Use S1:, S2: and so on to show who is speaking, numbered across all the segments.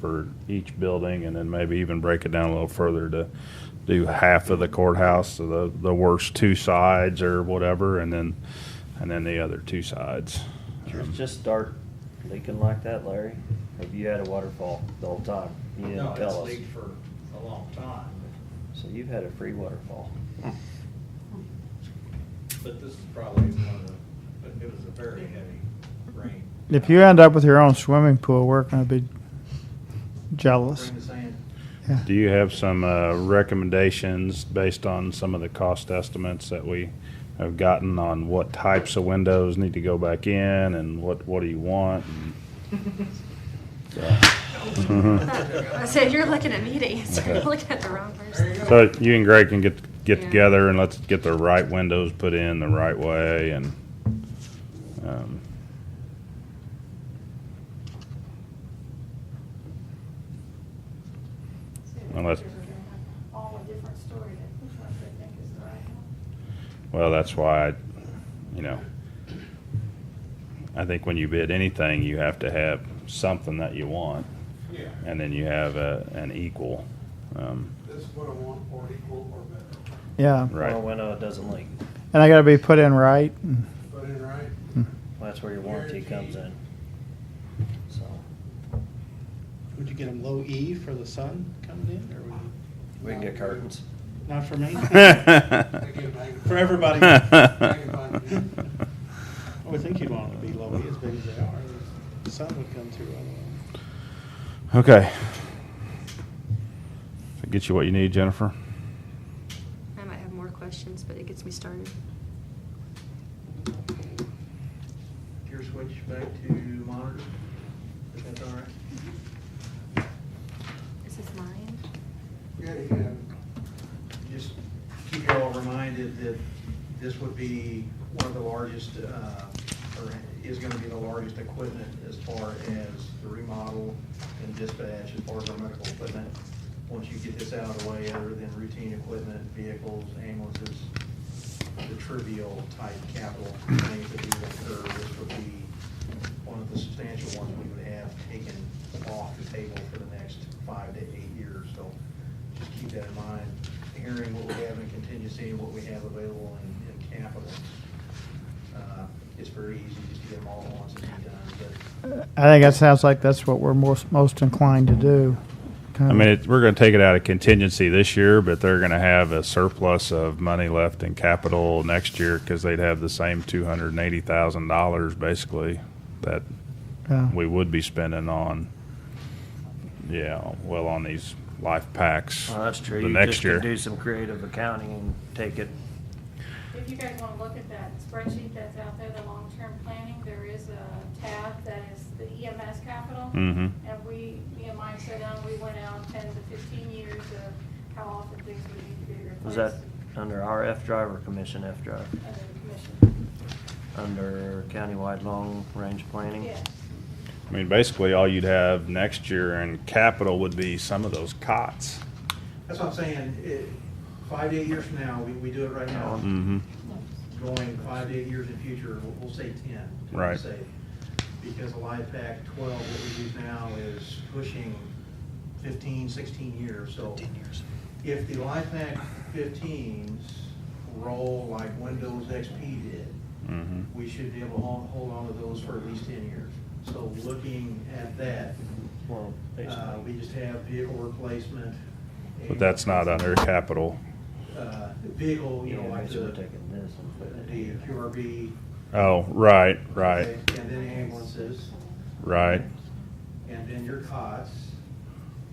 S1: for each building and then maybe even break it down a little further to do half of the courthouse, so the, the worst two sides or whatever, and then, and then the other two sides.
S2: Yours just start leaking like that, Larry? Have you had a waterfall the whole time? You didn't
S3: No,
S2: tell
S3: it's
S2: us.
S3: leaked for a long time,
S2: So you've had a free waterfall.
S3: but this is probably one of the, but it was a very heavy rain.
S4: If you end up with your own swimming pool, we're going to be jealous.
S3: Bring the sand.
S4: Yeah.
S1: Do you have some uh, recommendations based on some of the cost estimates that we have gotten on what types of windows need to go back in and what, what do you want? uh, Mm-hmm.
S5: I said, you're looking at me to answer. You're looking at the wrong person.
S1: So you and Greg can get, get
S5: Yeah.
S1: together and let's get the right windows put in the right way and, um, Unless-
S6: All a different story, that which one they think is the right one.
S1: well, that's why, I you know, I think when you bid anything, you have to have something that you want.
S7: Yeah,
S1: and then you have a, an equal. Um,
S7: this is what I want, or equal or better.
S4: Yeah.
S2: Well,
S1: right.
S2: when uh, it doesn't leak,
S4: And I got to be put in right.
S7: Put in right,
S2: that's where your warranty comes in. So,
S8: Would you get them low E for the sun coming in, or would you,
S2: we can get curtains.
S8: not for me?
S7: they get magnified.
S8: For everybody.
S7: Magnified.
S8: I would think you'd want them to be low E as big as they are. The sun would come through on them.
S1: okay. That gets you what you need, Jennifer.
S5: I might have more questions, but it gets me started.
S3: Your switch back to monitor, if that's all right.
S5: Mm-hmm. Is this mine?
S7: Yeah, yeah.
S3: Just keep y'all reminded that this would be one of the largest, uh, or is gonna be the largest equipment as far as the remodel and dispatch, as far as our medical equipment. Once you get this out of the way, other than routine equipment, vehicles, ambulances, the trivial type capital things that we would incur, this would be one of the substantial ones we would have taken off the table for the next five to eight years. So just keep that in mind, hearing what we have in contingency and what we have available in, in capital. Uh, It's very easy just to get them all at once and be done, but
S4: I think that sounds like that's what we're most, most inclined to do.
S1: I mean, it, we're going to take it out of contingency this year, but they're going to have a surplus of money left in capital next year because they'd have the same two hundred and eighty thousand dollars basically that
S4: Yeah.
S1: we would be spending on. Yeah, well, on these life packs.
S2: Well, Oh, that's true.
S1: The
S2: You
S1: next
S2: just can
S1: year.
S2: do some creative accounting and take it.
S6: If you guys wanna look at that spreadsheet that's out there, the long-term planning, there is a tab that is the EMS capital.
S1: Mm-hmm.
S6: And we, me and Mike sat down, we went out ten to fifteen years of how often things would need to be replaced.
S2: Was that under our F drive or commission F drive?
S6: Under the commission,
S2: Under countywide long-range planning?
S6: yes.
S1: I mean, basically, all you'd have next year in capital would be some of those cots.
S3: that's what I'm saying, it, five to eight years from now, we, we do it right now.
S1: Mm-hmm.
S3: going five to eight years in the future, we'll- we'll say 10. to be
S1: Right.
S3: safe. Because the life pack 12, what we use now is pushing 15, 16 years, so. 10 years. If the life pack 15s roll like Windows XP did,
S1: Mm-hmm.
S3: we should be able to hol- hold on to those for at least 10 years. So looking at that,
S2: Well,
S3: uh, we just have vehicle replacement.
S1: But that's not under capital.
S3: uh, Vehicle, you know,
S2: Yeah,
S3: like
S2: basically we're
S3: the
S2: taking this and putting it
S3: the
S2: here.
S3: QRV,
S1: Oh, right, right,
S3: Okay, And then ambulances,
S1: right,
S3: and then your cots,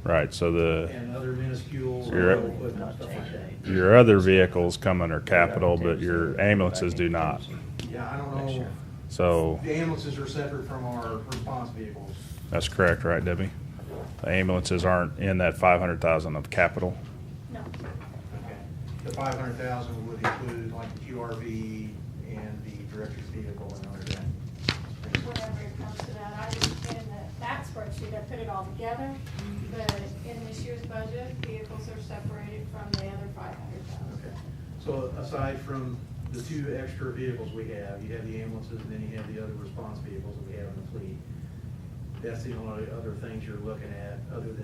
S1: right. So the,
S3: and other minuscule
S1: So you're at-
S3: equipment, stuff like that.
S1: your other vehicles come under capital, but your ambulances do not.
S3: Yeah, I
S2: Next
S3: don't know,
S2: year.
S1: So,
S3: the ambulances are separate from our response vehicles.
S1: that's correct, right, Debbie? The ambulances aren't in that five hundred thousand of capital.
S6: No,
S3: Okay. The five hundred thousand would include like the QRV and the director's vehicle and other than.
S6: whenever it comes to that, I just, in the- that spreadsheet, I put it all together, but in this year's budget, vehicles are separated from the other five hundred
S3: Okay.
S6: thousand.
S3: So aside from the two extra vehicles we have, you have the ambulances, and then you have the other response vehicles that we have in the fleet. That's the only other things you're looking at, other than